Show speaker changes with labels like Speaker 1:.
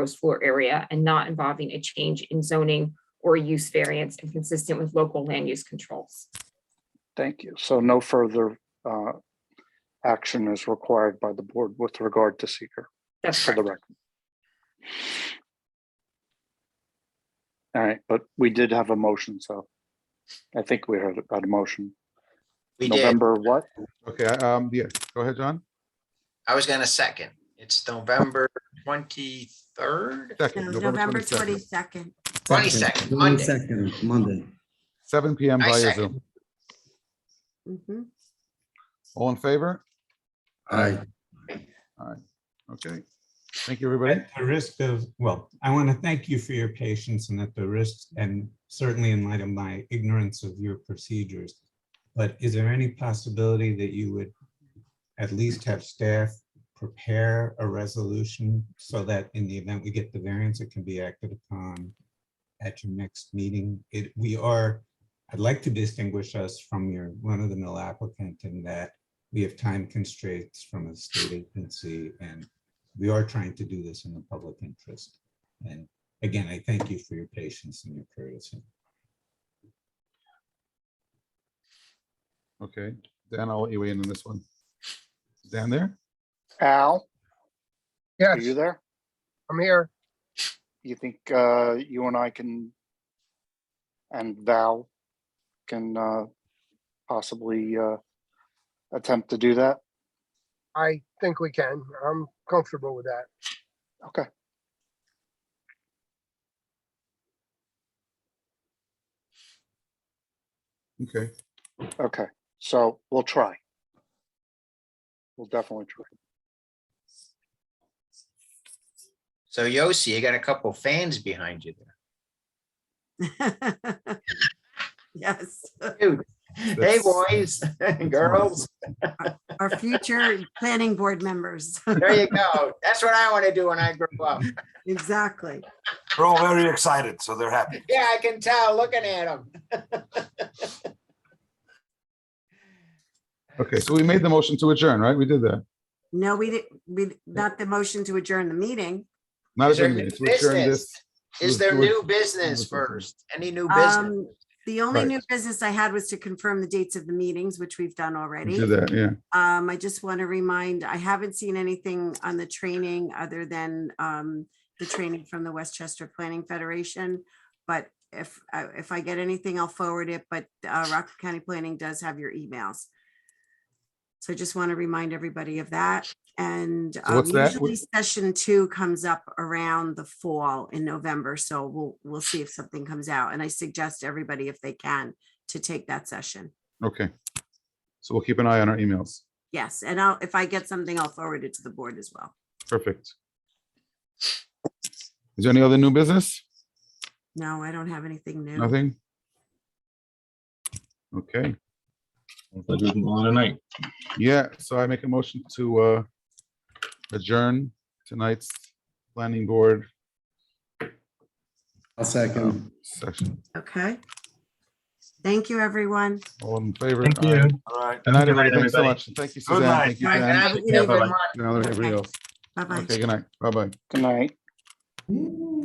Speaker 1: gross floor area and not involving a change in zoning or use variance and consistent with local land use controls.
Speaker 2: Thank you. So no further uh, action is required by the board with regard to seeker
Speaker 1: That's
Speaker 2: for
Speaker 1: correct.
Speaker 2: the record. All right, but we did have a motion, so I think we heard about a motion.
Speaker 3: We did.
Speaker 2: November what?
Speaker 4: Okay, I- um, yeah, go ahead, John.
Speaker 3: I was gonna second. It's November twenty-third,
Speaker 4: Second,
Speaker 5: No, November
Speaker 4: 22nd,
Speaker 5: twenty-second.
Speaker 3: twenty-second, Monday.
Speaker 6: Second, Monday.
Speaker 4: Seven PM
Speaker 3: I
Speaker 4: via
Speaker 3: second.
Speaker 4: Zoom. All in favor?
Speaker 6: Aye.
Speaker 4: Okay. Thank you, everybody.
Speaker 7: At the risk of, well, I want to thank you for your patience and at the risk, and certainly in light of my ignorance of your procedures. But is there any possibility that you would at least have staff prepare a resolution so that in the event we get the variance, it can be acted upon at your next meeting? It, we are, I'd like to distinguish us from your one-of-the-mill applicant in that we have time constraints from a state agency and we are trying to do this in the public interest. And again, I thank you for your patience and your courtesy.
Speaker 4: Okay, Dan, I'll let you in on this one. Dan there?
Speaker 2: Al, are you
Speaker 8: Yes,
Speaker 2: there?
Speaker 8: I'm here.
Speaker 2: You think uh, you and I can and Val can uh, possibly uh, attempt to do that?
Speaker 8: I think we can. I'm comfortable with that.
Speaker 2: Okay.
Speaker 4: Okay,
Speaker 2: Okay, so we'll try. We'll definitely try.
Speaker 3: So Yossi, you got a couple fans behind you there.
Speaker 5: Mm-hmm. Yes,
Speaker 3: Hey, boys, girls,
Speaker 5: our future planning board members.
Speaker 3: there you go. That's what I want to do when I grow up.
Speaker 5: Exactly.
Speaker 9: They're all very excited, so they're happy.
Speaker 3: Yeah, I can tell, looking at them.
Speaker 4: okay, so we made the motion to adjourn, right? We did that.
Speaker 5: No, we didn't, we, not the motion to adjourn the meeting.
Speaker 4: Not
Speaker 3: Is there
Speaker 4: adjourn
Speaker 3: new
Speaker 4: meeting, to adjourn
Speaker 3: business?
Speaker 4: this.
Speaker 3: Is there new business first? Any new business?
Speaker 5: Um, the only
Speaker 4: Right.
Speaker 5: new business I had was to confirm the dates of the meetings, which we've done
Speaker 4: We
Speaker 5: already.
Speaker 4: did that, yeah.
Speaker 5: Um, I just want to remind, I haven't seen anything on the training other than, um, the training from the Westchester Planning Federation. But if, I if I get anything, I'll forward it, but, uh, Rockland County Planning does have your emails. So I just want to remind everybody of that. And
Speaker 4: So what's
Speaker 5: um,
Speaker 4: that?
Speaker 5: usually session two comes up around the fall in November, so we'll, we'll see if something comes out. And I suggest everybody, if they can, to take that session.
Speaker 4: Okay. So we'll keep an eye on our emails.
Speaker 5: Yes, and I'll, if I get something, I'll forward it to the board as well.
Speaker 4: Perfect. Is there any other new business?
Speaker 5: No, I don't have anything new.
Speaker 4: Nothing? Okay,
Speaker 9: Tonight.
Speaker 4: yeah, so I make a motion to uh adjourn tonight's planning board
Speaker 6: I'll second.
Speaker 4: session.
Speaker 5: Okay. Thank you, everyone.
Speaker 4: All in favor?
Speaker 8: Thank
Speaker 4: Aye.
Speaker 8: you.
Speaker 9: All right.
Speaker 4: Good night, everybody. Thanks so much. Thank you,
Speaker 9: Good
Speaker 4: Suzanne.
Speaker 9: night.
Speaker 4: Thank you,
Speaker 5: All right,
Speaker 3: And
Speaker 4: Dan.
Speaker 3: I
Speaker 5: Good evening,
Speaker 3: have a
Speaker 5: everybody.
Speaker 3: mon-
Speaker 4: Good night, everybody else.
Speaker 5: Bye-bye.
Speaker 4: Okay, good night. Bye-bye.
Speaker 2: Good night.